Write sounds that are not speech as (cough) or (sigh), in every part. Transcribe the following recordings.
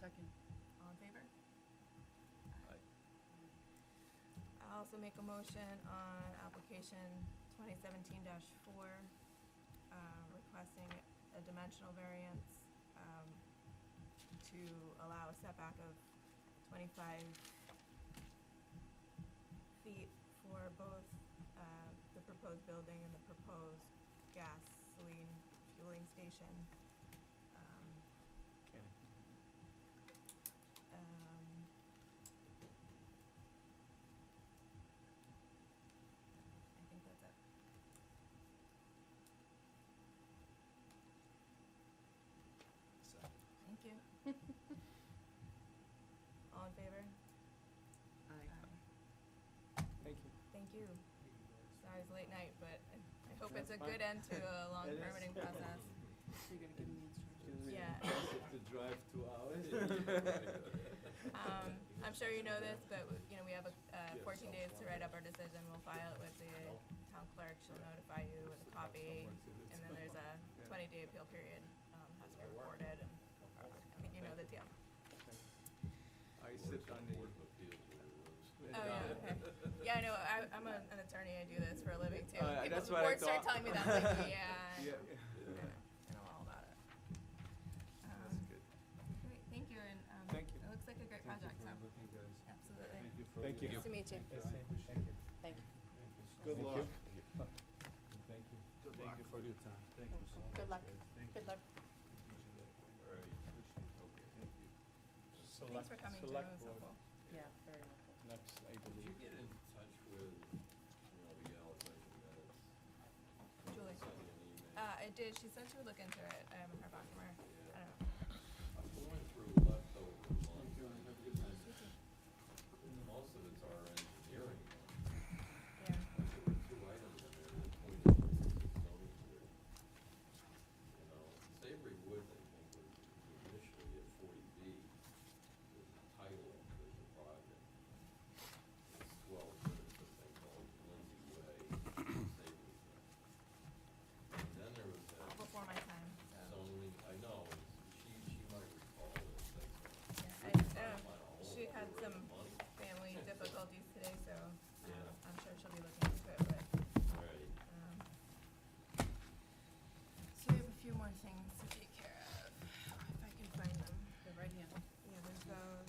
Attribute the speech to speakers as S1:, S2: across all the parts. S1: Second.
S2: All in favor? I also make a motion on application 2017-4, uh, requesting a dimensional variance um, to allow a setback of 25 feet for both uh, the proposed building and the proposed gasoline fueling station. Um, um, I think that's it. Thank you. All in favor?
S1: Aye.
S3: Thank you.
S2: Thank you. Sorry it's late night, but I- I hope it's a
S3: That's fine.
S2: good end to a long
S3: It is.
S2: permitting process.
S1: So you're gonna give them the instructions?
S3: Excuse me.
S2: Yeah.
S4: To drive two hours.
S2: Um, I'm sure you know this, but, you know, we have uh, 14 days to write up our decision. We'll file it with the town clerk. She'll notify you with a copy. And then there's a 20-day appeal period, um, has to be recorded, and uh, I think you know the deal.
S3: I sit on
S4: Board
S3: the,
S4: of Appeals where
S2: Oh,
S4: it was.
S2: yeah,
S3: (laughs)
S2: okay. Yeah, I know, I, I'm a- an attorney, I do this for a living too.
S3: Oh, yeah,
S2: People-
S3: that's what I
S2: Boards start
S3: thought.
S2: telling me that, I'm
S3: (laughs)
S2: like, yeah.
S3: yeah,
S2: I know, I know all about it. Um,
S3: that's good.
S2: Great, thank you, and, um,
S3: Thank you.
S2: it looks like a great project, so, absolutely.
S4: Thank you for.
S3: Thank
S4: your-
S3: you.
S2: Nice to meet you.
S1: Thank you.
S3: Good luck.
S4: Thank you.
S3: Thank you for your time.
S4: Thank you so much.
S1: Good luck.
S4: guys. Thank
S1: Good
S4: you.
S1: luck.
S4: All right. Okay, thank you.
S2: Thanks for coming, Jim, it was helpful.
S1: Yeah, very helpful.
S3: Next, I
S4: Did you
S3: believe.
S4: get in touch with, you know, the gal that you met?
S2: Julie.
S4: Send you an email.
S2: Uh, I did, she said she would look into it, I haven't heard back from her, I don't know.
S4: I'm going through leftovers on, most of it's our engineering.
S2: Yeah,
S4: There were two items in there that pointed to the zoning board. You know, Savory Woods, I think, was initially at forty B, was the title of the project. It's twelve, but it's a thing called Lindsay Way, Savory. Way. And then there was
S2: all
S4: that.
S2: before my time.
S4: Zoning, I know, she, she might recall this, like.
S2: Yeah, I,
S4: we can
S2: I
S4: find
S2: don't know.
S4: out a whole
S2: she
S4: lot
S2: had
S4: more
S2: some
S4: money.
S2: family difficulties today, so, um,
S4: Yeah.
S2: I'm sure she'll be looking into it, but,
S4: Right,
S2: um. So we have a few more things to take care of, if I can find them.
S1: They're right here.
S2: Yeah, there's those,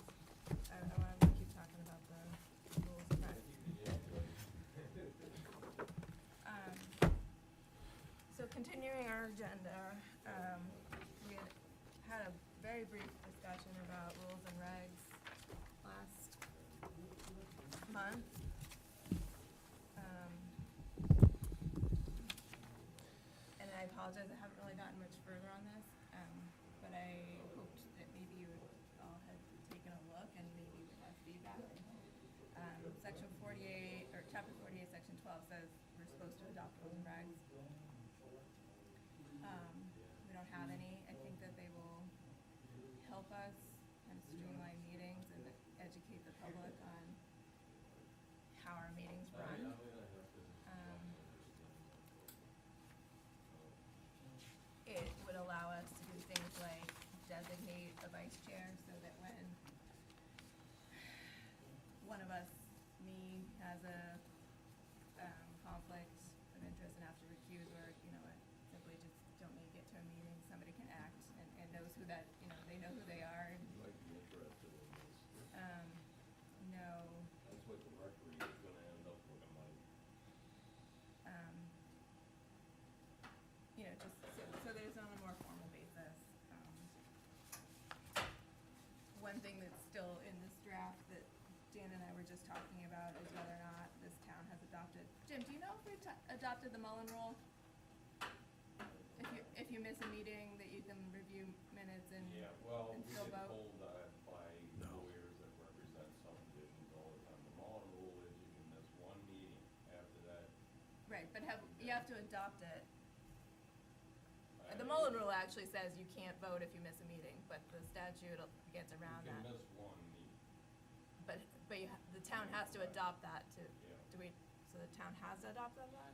S2: I, I wanna keep talking about the rules of practice.
S4: yeah, right.
S2: Um, So continuing our agenda, um, we had had a very brief discussion about rules and regs last month. Um, And I apologize, I haven't really gotten much further on this, um, but I hoped that maybe you all had taken a look and maybe would have feedback. Um, section forty-eight, or chapter forty-eight, section twelve says we're supposed to adopt rules and regs. Um, we don't have any, I think that they will help us kind of streamline meetings and educate the public on how our meetings run. Um, It would allow us to do things like designate a vice chair so that when one of us, me, has a um, conflict of interest and have to recuse or, you know, simply just don't make it to a meeting, somebody can act and, and knows who that, you know, they know who they are and,
S4: You might be interested in this.
S2: um, know
S4: That's what the Mercury is gonna end up looking like.
S2: um, you know, just, so, so there's on a more formal basis. um, One thing that's still in this draft that Dan and I were just talking about is whether or not this town has adopted, Jim, do you know if we ta- adopted the Mullen Rule? If you, if you miss a meeting, that you can review minutes and,
S4: Yeah, well,
S2: and
S4: we
S2: still
S4: get
S2: vote?
S4: told that by lawyers that represent subdivisions all the time. The Mullen rule is you can miss one meeting after that.
S2: Right, but have, you have to adopt it.
S4: I-
S2: The Mullen Rule actually says you can't vote if you miss a meeting, but the statute gets around that.
S4: You can miss one meeting.
S2: But, but you, ha- the town has to adopt that to,
S4: Yeah.
S2: do we, so the town has to adopt that law?